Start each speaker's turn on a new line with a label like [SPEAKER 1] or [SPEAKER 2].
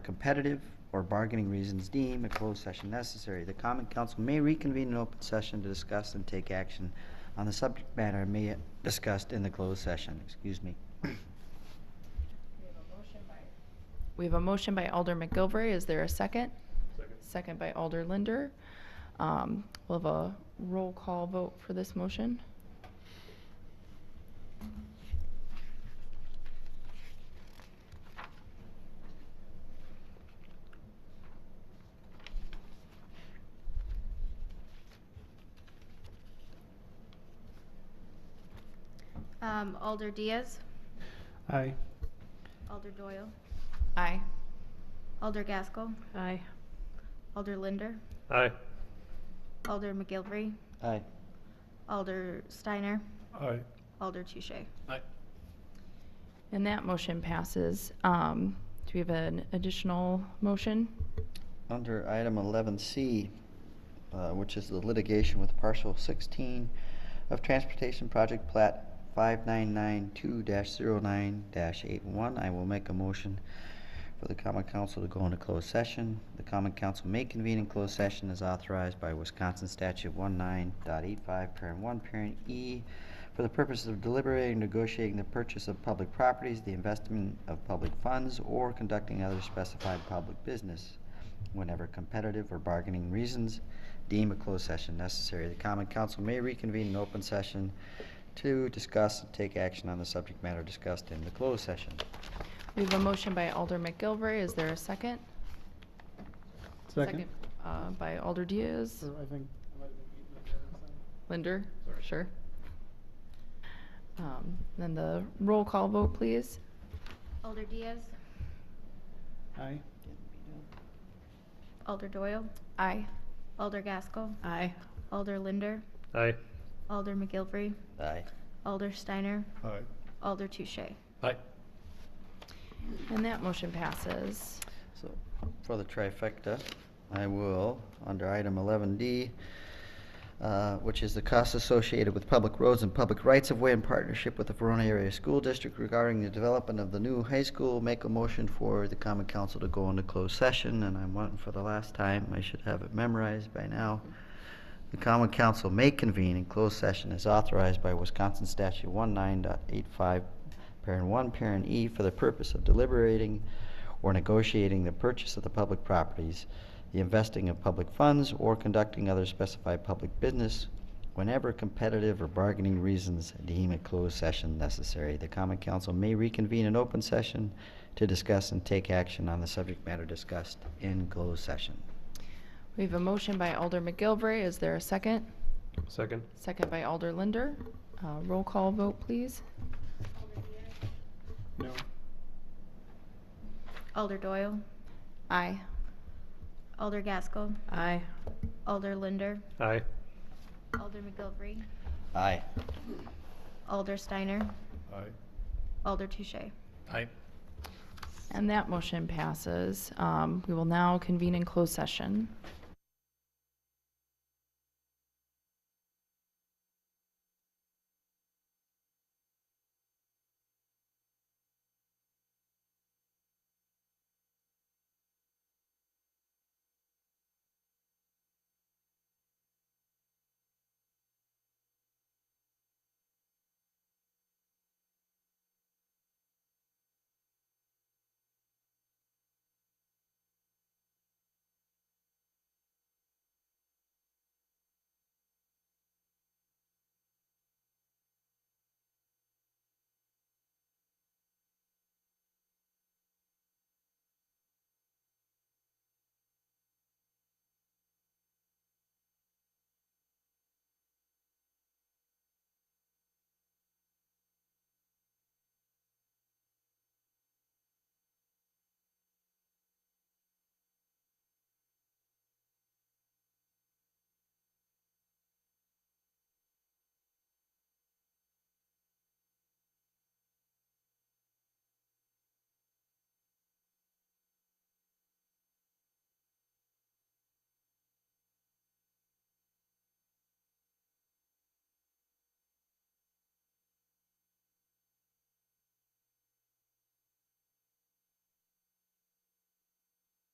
[SPEAKER 1] competitive or bargaining reasons deem a closed session necessary, the common council may reconvene an open session to discuss and take action on the subject matter may discussed in the closed session, excuse me.
[SPEAKER 2] We have a motion by,
[SPEAKER 3] We have a motion by Alder McGilvray. Is there a second?
[SPEAKER 4] Second.
[SPEAKER 3] Second by Alder Linder. Um, We'll have a roll call vote for this motion.
[SPEAKER 5] Um, Alder Diaz,
[SPEAKER 4] Aye.
[SPEAKER 5] Alder Doyle,
[SPEAKER 3] Aye.
[SPEAKER 5] Alder Gaskell,
[SPEAKER 2] aye,
[SPEAKER 5] Alder Linder,
[SPEAKER 4] Aye.
[SPEAKER 5] Alder McGilvery,
[SPEAKER 1] Aye.
[SPEAKER 5] Alder Steiner,
[SPEAKER 4] Aye.
[SPEAKER 5] Alder Touche.
[SPEAKER 4] Aye.
[SPEAKER 3] And that motion passes. Um, Do we have an additional motion?
[SPEAKER 1] Under item 11C, uh, which is the litigation with parcel 16 of Transportation Project Plat 5992-09-81, I will make a motion for the common council to go into closed session. The common council may convene in closed session as authorized by Wisconsin Statute 19.85, parent 1, parent E, for the purposes of deliberating, negotiating the purchase of public properties, the investment of public funds, or conducting other specified public business whenever competitive or bargaining reasons deem a closed session necessary. The common council may reconvene in open session to discuss and take action on the subject matter discussed in the closed session.
[SPEAKER 3] We have a motion by Alder McGilvray. Is there a second?
[SPEAKER 4] Second.
[SPEAKER 3] uh, By Alder Diaz.
[SPEAKER 4] Or I think.
[SPEAKER 3] Linder? Sure. Um, Then the roll call vote, please.
[SPEAKER 5] Alder Diaz,
[SPEAKER 4] Aye.
[SPEAKER 5] Alder Doyle,
[SPEAKER 3] Aye.
[SPEAKER 5] Alder Gaskell,
[SPEAKER 2] aye.
[SPEAKER 5] Alder Linder,
[SPEAKER 4] Aye.
[SPEAKER 5] Alder McGilvery,
[SPEAKER 1] Aye.
[SPEAKER 5] Alder Steiner,
[SPEAKER 4] Aye.
[SPEAKER 5] Alder Touche.
[SPEAKER 4] Aye.
[SPEAKER 3] And that motion passes.
[SPEAKER 1] So, for the trifecta, I will, under item 11D, uh, which is the costs associated with public roads and public rights-of-way in partnership with the Verona Area School District regarding the development of the new high school, make a motion for the common council to go into closed session, and I'm wanting for the last time, I should have it memorized by now. The common council may convene in closed session as authorized by Wisconsin statute 19.85, parent 1, parent E, for the purpose of deliberating or negotiating the purchase of the public properties, the investing of public funds, or conducting other specified public business whenever competitive or bargaining reasons deem a closed session necessary. The common council may reconvene in open session to discuss and take action on the subject matter discussed in closed session.
[SPEAKER 3] We have a motion by Alder McGilvray. Is there a second?
[SPEAKER 4] Second.
[SPEAKER 3] Second by Alder Linder. Uh, Roll call vote, please.
[SPEAKER 4] No.
[SPEAKER 5] Alder Doyle,
[SPEAKER 3] Aye.
[SPEAKER 5] Alder Gaskell,
[SPEAKER 2] Aye.
[SPEAKER 5] Alder Linder,
[SPEAKER 4] Aye.
[SPEAKER 5] Alder McGilvery,
[SPEAKER 1] Aye.
[SPEAKER 5] Alder Steiner,
[SPEAKER 4] Aye.
[SPEAKER 5] Alder Touche.
[SPEAKER 4] Aye.
[SPEAKER 3] And that motion passes. Um, We will now convene in closed session.